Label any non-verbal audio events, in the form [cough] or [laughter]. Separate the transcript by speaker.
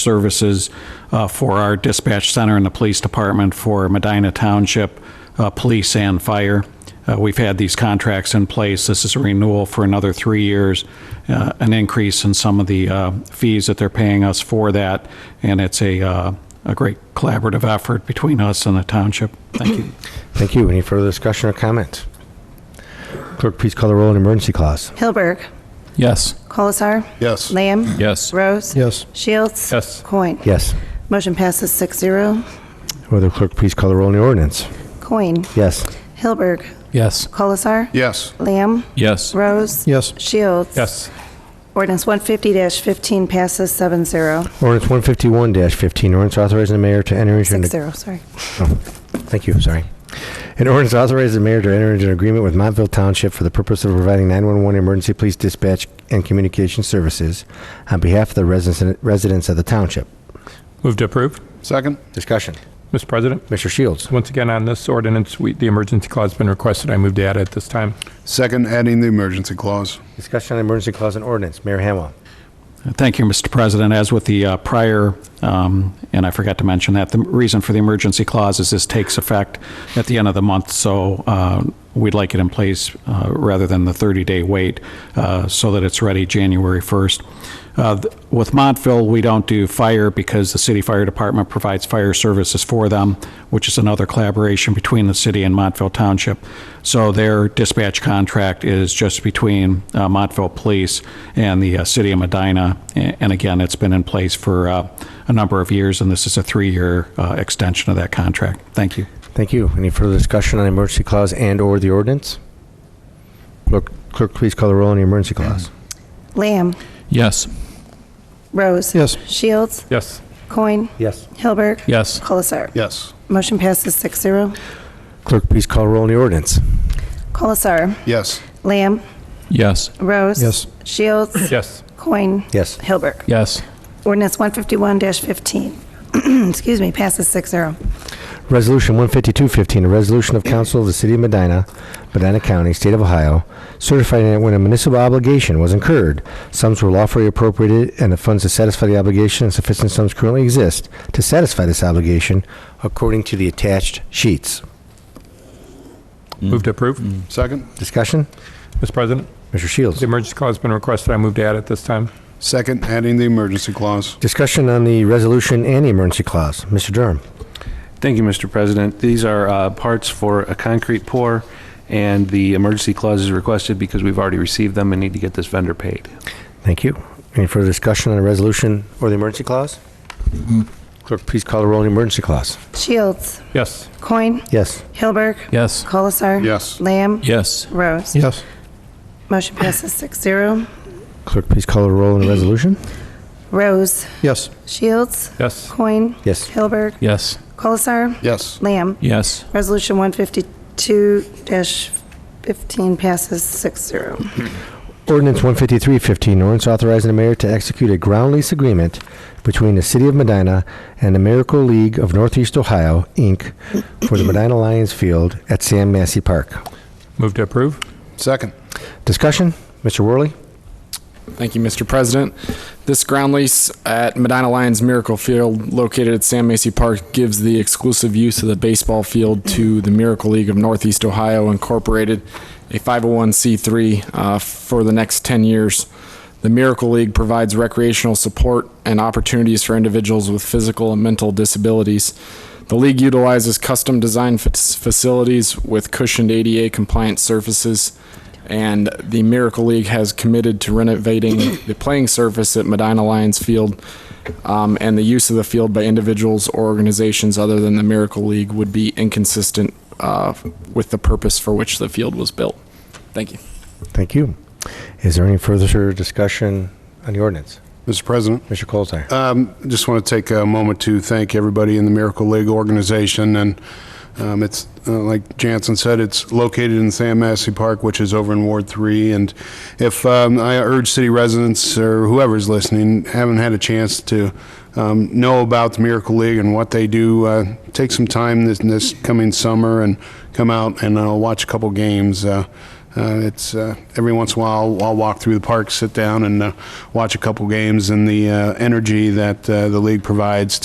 Speaker 1: services uh, for our dispatch center and the police department for Medina Township uh, Police and Fire. Uh, We've had these contracts in place. This is a renewal for another three years, uh, an increase in some of the uh, fees that they're paying us for that, and it's a, uh, a great collaborative effort between us and the township. Thank you.
Speaker 2: Thank you. Any further discussion or comment? Clerk, please call the roll on emergency clause.
Speaker 3: Hilberg.
Speaker 4: Yes.
Speaker 3: Colasar.
Speaker 5: Yes.
Speaker 3: Lamb.
Speaker 4: Yes.
Speaker 3: Rose.
Speaker 2: Yes.
Speaker 3: Shields.
Speaker 4: Yes.
Speaker 3: Coin.
Speaker 2: Yes.
Speaker 3: Motion passes six zero.
Speaker 2: Will the clerk please call the roll on the ordinance?
Speaker 3: Coin.
Speaker 2: Yes.
Speaker 3: Hilberg.
Speaker 4: Yes.
Speaker 3: Colasar.
Speaker 5: Yes.
Speaker 3: Lamb.
Speaker 4: Yes.
Speaker 3: Rose.
Speaker 2: Yes.
Speaker 3: Shields. Ordinance 150-15 passes seven zero.
Speaker 2: Ordinance 151-15, ordinance authorizing the mayor to enter into... an-
Speaker 3: Six zero, sorry.
Speaker 2: Oh, Thank you, sorry. An ordinance authorizing the mayor to enter into an agreement with Montville Township for the purpose of providing 911 emergency police dispatch and communication services on behalf of the residents residents of the township.
Speaker 6: Move to approve.
Speaker 5: Second?
Speaker 2: Discussion.
Speaker 6: Mr. President,
Speaker 2: Mr. Shields.
Speaker 6: once again on this ordinance, we, the emergency clause has been requested. I move to add it at this time.
Speaker 5: Second, adding the emergency clause.
Speaker 2: Discussion on emergency clause and ordinance. Mayor Hamwell.
Speaker 1: Thank you, Mr. President. As with the uh, prior, um, and I forgot to mention that, the reason for the emergency clause is this takes effect at the end of the month, so uh, we'd like it in place uh, rather than the 30-day wait, uh, so that it's ready January 1st. Uh, th- With Montville, we don't do fire because the city fire department provides fire services for them, which is another collaboration between the city and Montville Township. So their dispatch contract is just between uh, Montville Police and the uh, city of Medina. A- And again, it's been in place for uh, a number of years, and this is a three-year uh, extension of that contract. Thank you.
Speaker 2: Thank you. Any further discussion on emergency clause and/or the ordinance? Clerk, clerk, please call the roll on the emergency clause.
Speaker 3: Lamb.
Speaker 4: Yes.
Speaker 3: Rose.
Speaker 2: Yes.
Speaker 3: Shields.
Speaker 6: Yes.
Speaker 3: Coin.
Speaker 2: Yes.
Speaker 3: Hilberg.
Speaker 4: Yes.
Speaker 3: Colasar.
Speaker 5: Yes.
Speaker 3: Motion passes six zero.
Speaker 2: Clerk, please call roll on the ordinance.
Speaker 3: Colasar.
Speaker 5: Yes.
Speaker 3: Lamb.
Speaker 4: Yes.
Speaker 3: Rose.
Speaker 2: Yes.
Speaker 3: Shields.
Speaker 6: Yes.
Speaker 3: Coin.
Speaker 2: Yes.
Speaker 3: Hilberg.
Speaker 4: Yes.
Speaker 3: Ordinance 151-15, [clears throat] excuse me, passes six zero.
Speaker 2: Resolution 15215, a resolution of council of the city of Medina, Medina County, state of Ohio, certifying that when a municipal obligation was incurred, sums were lawfully appropriated and the funds to satisfy the obligation and sufficient sums currently exist to satisfy this obligation according to the attached sheets.
Speaker 6: Move to approve.
Speaker 5: Second?
Speaker 2: Discussion?
Speaker 6: Mr. President,
Speaker 2: Mr. Shields.
Speaker 6: the emergency clause has been requested. I move to add it this time.
Speaker 5: Second, adding the emergency clause.
Speaker 2: Discussion on the resolution and the emergency clause. Mr. Durham.
Speaker 7: Thank you, Mr. President. These are uh, parts for a concrete pour, and the emergency clause is requested because we've already received them and need to get this vendor paid.
Speaker 2: Thank you. Any further discussion on the resolution or the emergency clause? Clerk, please call the roll on the emergency clause.
Speaker 3: Shields,
Speaker 6: Yes.
Speaker 3: Coin,
Speaker 2: Yes.
Speaker 3: Hilberg,
Speaker 4: Yes.
Speaker 3: Colasar.
Speaker 5: Yes.
Speaker 3: Lamb,
Speaker 4: Yes.
Speaker 3: Rose.
Speaker 6: Yes.
Speaker 3: Motion passes six zero.
Speaker 2: Clerk, please call the roll on the resolution.
Speaker 3: Rose,
Speaker 2: Yes.
Speaker 3: Shields,
Speaker 6: Yes.
Speaker 3: Coin,
Speaker 2: Yes.
Speaker 3: Hilberg,
Speaker 4: Yes.
Speaker 3: Colasar,
Speaker 5: Yes.
Speaker 3: Lamb.
Speaker 4: Yes.
Speaker 3: Resolution 152-15 passes six zero.
Speaker 2: Ordinance 15315, ordinance authorizing the mayor to execute a ground lease agreement between the City of Medina and the Miracle League of Northeast Ohio, Inc., for the Medina Lions Field at Sam Massey Park.
Speaker 6: Move to approve.
Speaker 5: Second?
Speaker 2: Discussion? Mr. Worley?
Speaker 8: Thank you, Mr. President. This ground lease at Medina Lions Miracle Field, located at Sam Macy Park, gives the exclusive use of the baseball field to the Miracle League of Northeast Ohio Incorporated, a 501c3, uh, for the next 10 years. The Miracle League provides recreational support and opportunities for individuals with physical and mental disabilities. The league utilizes custom designed fac- facilities with cushioned ADA compliant surfaces and the Miracle League has committed to renovating the playing surface at Medina Lions Field, um, and the use of the field by individuals or organizations other than the Miracle League would be inconsistent uh, with the purpose for which the field was built. Thank you.
Speaker 2: Thank you. Is there any further discussion on the ordinance?
Speaker 5: Mr. President?
Speaker 2: Mr. Colzar?
Speaker 5: Um, just want to take a moment to thank everybody in the Miracle League organization. And um, it's, uh, like Jansen said, it's located in Sam Massey Park, which is over in Ward 3. And if um, I urge city residents or whoever's listening, haven't had a chance to um, know about the Miracle League and what they do, uh, take some time this, this coming summer and come out and uh, watch a couple games. Uh, Uh, It's, uh, every once in a while, I'll walk through the park, sit down and uh, watch a couple games, and the uh, energy that uh, the league provides